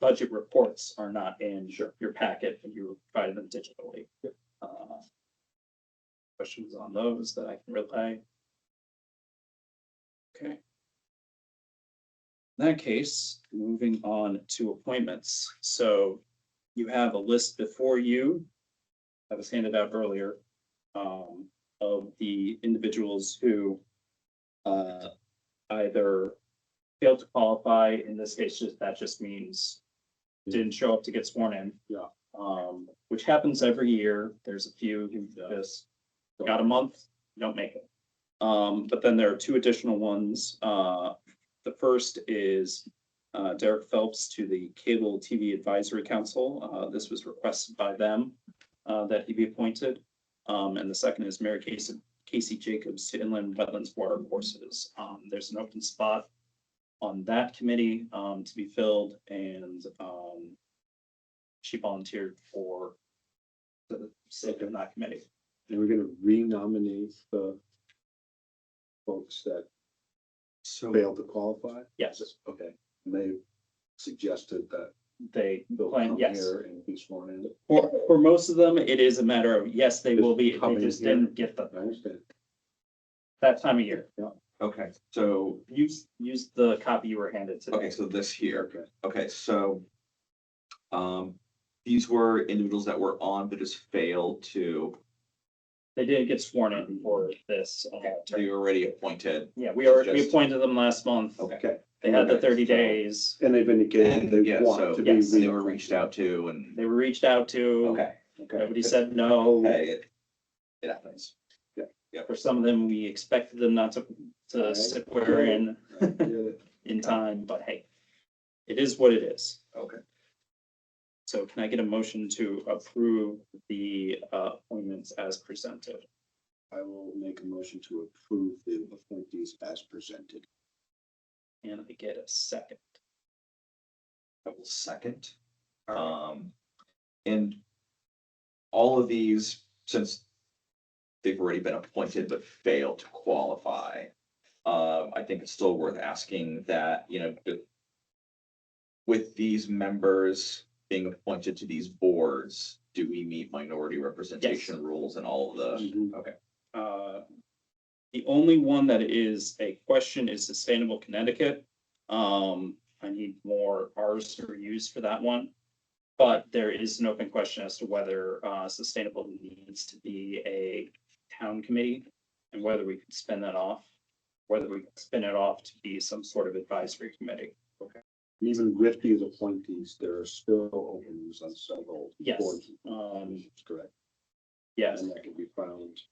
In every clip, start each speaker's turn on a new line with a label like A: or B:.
A: budget reports are not in your, your packet, and you provided them digitally. Uh, Questions on those that I can relay? Okay. In that case, moving on to appointments. So you have a list before you that was handed out earlier um, of the individuals who uh, either failed to qualify, in this case, just- that just means didn't show up to get sworn in.
B: Yeah.
A: Um, which happens every year. There's a few who just got a month, don't make it. Um, but then there are two additional ones. Uh, the first is uh, Derek Phelps to the Cable TV Advisory Council. Uh, this was requested by them uh, that he be appointed. Um, and the second is Mary Casey, Casey Jacobs to Inland Wetlands Water Courses. Um, there's an open spot on that committee, um, to be filled and, um, she volunteered for the sake of that committee.
B: And we're gonna renominate the folks that
C: So,
B: failed to qualify?
A: Yes,
B: Okay, and they suggested that
A: they
B: they'll
A: plan,
B: come
A: yes.
B: here and be sworn in.
A: For, for most of them, it is a matter of, yes, they will be,
B: Just come
A: they
B: in
A: just
B: here.
A: didn't get the,
B: I understand.
A: that time of year.
C: okay, so,
A: Use, use the copy you were handed
C: okay,
A: today.
C: so this here,
B: Okay.
C: okay, so. Um, these were individuals that were on but just failed to,
A: They didn't get sworn in for this. uh, term.
C: they were already appointed.
A: Yeah, we are, we
C: Just-
A: appointed them last month.
C: Okay.
A: They had the
C: Okay,
A: thirty
C: so-
A: days.
B: And they've indicated
C: And,
B: they
C: yeah,
B: want
C: so,
B: to be.
A: yes,
C: and they were reached out to and,
A: They were reached out to.
C: okay,
A: Nobody said no.
C: hey, it, it happens.
A: For some of them, we expected them not to, to
B: Alright.
A: sit where in,
B: reached.
A: in time, but hey, it is what it is.
C: Okay.
A: So can I get a motion to approve the uh, appointments as presented?
B: I will make a motion to approve the appointees as presented.
A: And I get a second.
C: I will second. Um, and all of these, since they've already been appointed but failed to qualify, um, I think it's still worth asking that, you know, the- with these members being appointed to these boards, do we meet minority representation rules and all of the?
B: Mhm.
A: Uh, The only one that is a question is Sustainable Connecticut. Um, I need more Rs or Us for that one. But there is an open question as to whether uh, Sustainable needs to be a town committee and whether we could spin that off, whether we could spin it off to be some sort of advisory committee.
B: Even with these appointees, there are still openings on several.
A: Yes.
B: boards.
A: Um,
B: Correct.
A: yes,
B: And that can be found.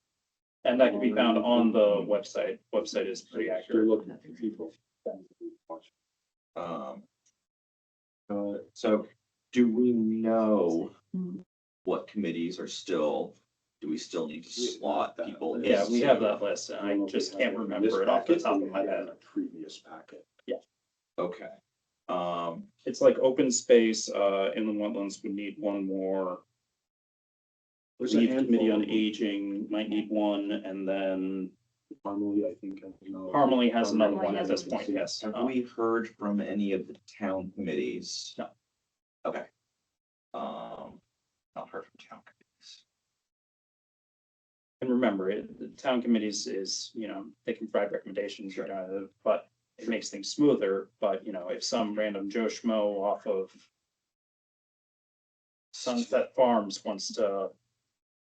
A: and that can be found on the website. Website is pretty
B: You're
A: accurate.
B: looking for people.
C: Um, uh, so do we know what committees are still, do we still need to slot people? in?
A: Yeah, we have that list. and I just can't remember it off the top of my head.
B: Previous packet.
C: Okay, um,
A: It's like open space, uh, inland wetlands would need one more.
B: There's a
A: Leave
B: handful
A: committee on
B: of them.
A: aging might need one, and then
B: Harmony, I think. I know.
A: Harmony has another
B: Harmony
A: one at this
B: has
A: point,
B: one.
A: yes.
C: have
A: Uh,
C: we heard from any of the town committees?
A: No.
C: Okay. Um, not heard from town committees.
A: And remember, it- the town committees is, you know, they can provide recommendations, you
C: Sure.
A: know, but it makes things smoother, but you know, if some random Joe Schmo off of Sunset Farms wants to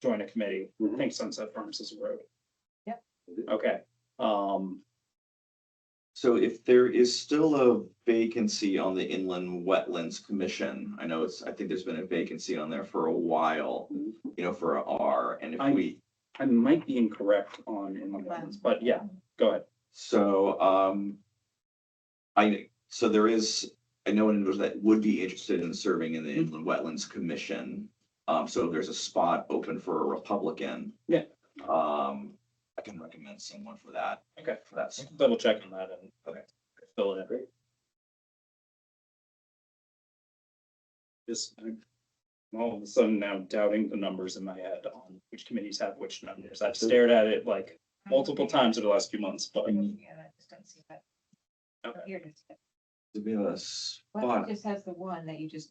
A: join a committee,
B: Mm-hmm.
A: I think Sunset Farms is a road.
D: Yep.
A: Okay, um,
C: So if there is still a vacancy on the Inland Wetlands Commission, I know it's, I think there's been a vacancy on there for a while,
B: Mhm.
C: you know, for a R, and if
A: Mm-hmm. I-
C: we,
A: I might be incorrect on inland wetlands, but yeah, go ahead.
C: so, um, I, so there is, I know an individual that would be interested in serving in the
A: Mm-hmm.
C: Inland Wetlands Commission. Um, so if there's a spot open for a Republican.
A: Yeah.
C: Um, I can recommend someone for that.
A: Okay.
C: For that. spot.
A: Double check on that and.
C: Okay.
A: Fill it in. Just, I'm all of a sudden now doubting the numbers in my head on which committees have which numbers. I've stared at it like multiple times over the last few months, but.
D: Yeah, I just don't see that.
A: Okay.
D: Here it is.
C: Do we have a
D: Well,
C: spot?
D: it just has the one that you just